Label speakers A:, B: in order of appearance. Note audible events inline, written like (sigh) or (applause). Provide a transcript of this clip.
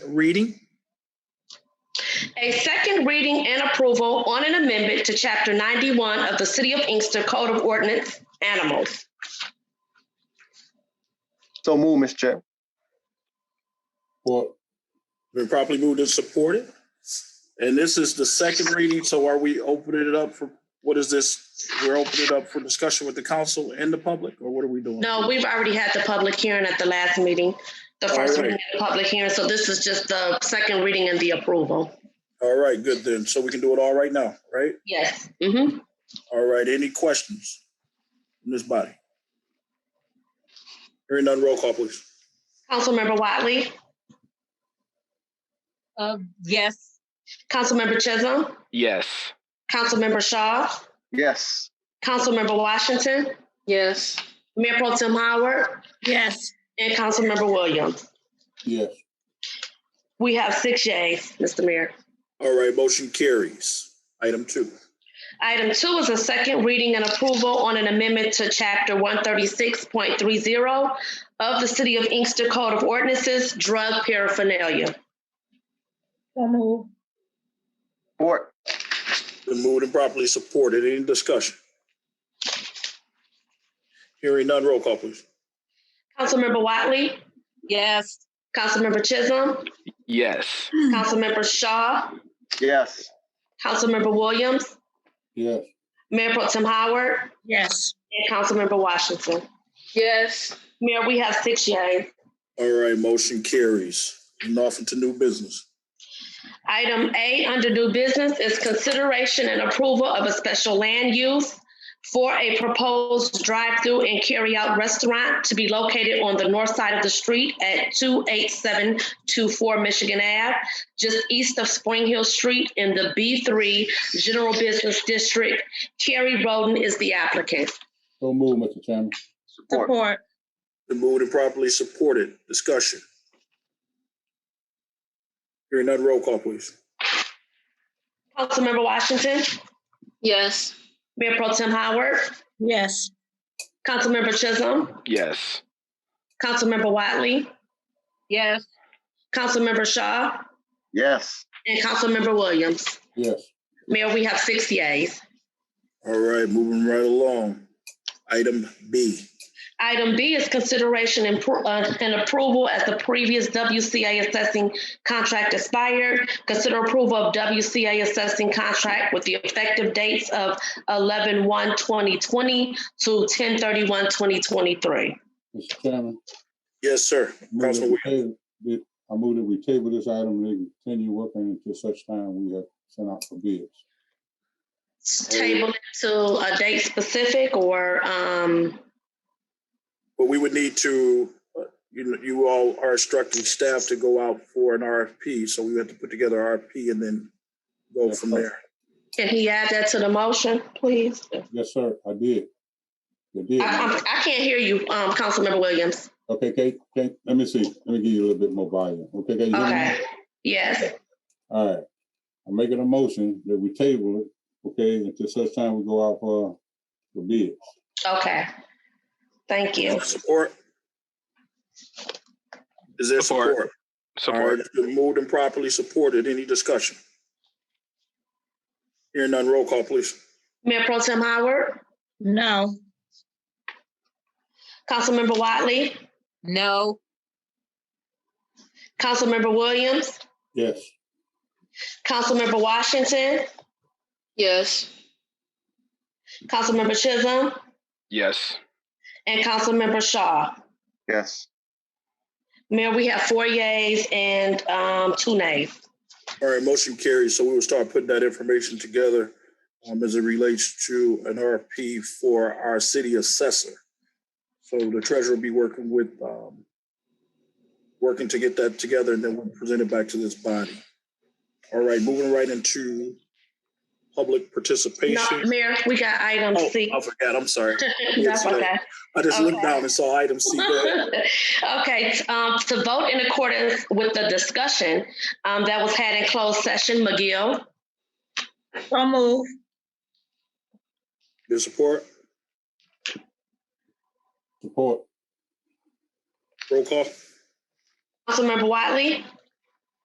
A: reading.
B: A second reading and approval on an amendment to Chapter 91 of the City of Inkster Code of Ordinance, Animals.
C: So move, Mr. Chair.
D: Well,
A: Been properly moved and supported. And this is the second reading, so are we opening it up for, what is this? We're opening it up for discussion with the council and the public, or what are we doing?
B: No, we've already had the public hearing at the last meeting, the
A: Alright.
B: first reading and the public hearing, so this is just the second reading and the approval.
A: All right, good then. So we can do it all right now, right?
B: Yes. Mm-hmm.
A: All right, any questions in this body? Hearing none, roll call, please.
B: Councilmember Watley,
E: Uh, yes.
B: Councilmember Chisholm,
F: Yes.
B: Councilmember Shaw,
C: Yes.
B: Councilmember Washington,
E: Yes.
B: Mayor Pro Tim Howard,
E: Yes.
B: and Councilmember Williams.
D: yes,
B: We have six yays, Mr. Mayor.
A: All right, motion carries. Item two.
B: Item two is a second reading and approval on an amendment to chapter one thirty-six point three zero of the City of Inkster Code of Ordinances, drug paraphernalia.
E: So move.
C: Support.
A: Been moved and properly supported. Any discussion? Hearing none, roll call, please.
B: Councilmember Watley,
E: Yes.
B: Councilmember Chisholm,
F: Yes.
B: Councilmember Shaw,
C: Yes.
B: Councilmember Williams,
D: yes,
B: Mayor Pro Tem Howard,
E: Yes.
B: and Councilmember Washington.
E: Yes.
B: Mayor, we have six yays.
A: All right, motion carries. And off into new business.
B: Item A under new business is consideration and approval of a special land use for a proposed drive-through and carry-out restaurant to be located on the north side of the street at 28724 Michigan Ave, just east of Spring Hill Street in the B3 General Business District. Carrie Roden is the applicant.
D: so move, Mr. Chairman.
C: Support.
A: Been moved and properly supported. Discussion. Hearing none, roll call, please.
B: Councilmember Washington,
E: Yes.
B: Mayor Pro Tem Howard,
E: Yes.
B: Councilmember Chisholm,
F: Yes.
B: Councilmember Wiley,
E: Yes.
B: Councilmember Shaw,
C: Yes.
B: And Councilmember Williams.
D: Yes,
B: Mayor, we have six yays.
A: All right, moving right along. Item B.
B: Item B is consideration and pro- uh, and approval as the previous WCA assessing contract expired. Consider approval of WCA assessing contract with the effective dates of 11-1-2020 to 10-31-2023.
D: Mr. Chairman.
A: Yes, sir.
D: move that
A: Councilman
D: we table- that- I move that we table this item and continue working until such time we have sent out for bids.
B: Table it to a date specific or, um,
A: But we would need to, uh, you know, you all are instructing staff to go out for an RFP, so we have to put together RFP and then go from there.
B: can he add that to the motion, please?
D: Yes, sir, I did. I did.
B: I, I'm- I can't hear you, um, Councilmember Williams.
D: Okay, okay, okay, let me see, let me give you a little bit more volume. Okay, okay, you hear me?
B: Okay, yes.
D: All right, I'm making a motion that we table it, okay, until such time we go out for, for bids.
B: Okay. Thank you.
A: Support? Is there
F: Support.
A: support? All right,
F: Support.
A: it's been moved and properly supported. Any discussion? Hearing none, roll call, please.
B: Mayor Pro Tem Howard,
E: No.
B: Councilmember Watley,
E: No.
B: Councilmember Williams,
D: Yes,
B: Councilmember Washington,
E: Yes.
B: Councilmember Chisholm,
F: Yes.
B: and Councilmember Shaw.
C: Yes.
B: Mayor, we have four yays and um, two nays.
A: All right, motion carries, so we will start putting that information together um, as it relates to an RFP for our city assessor. So the treasurer will be working with, um, working to get that together, and then we'll present it back to this body. All right, moving right into public
B: No,
A: participation.
B: Mayor, we got item
A: Oh,
B: C.
A: I forgot, I'm sorry.
B: That's
A: yes, ma'am.
B: okay.
A: I just looked
B: Okay.
A: down and saw item C. Go ahead.
B: (laughs) Okay, t- um, to vote in accordance with the discussion um, that was had in closed session, McGill,
E: So move.
A: Your support,
D: support,
A: roll call?
B: Councilmember Watley,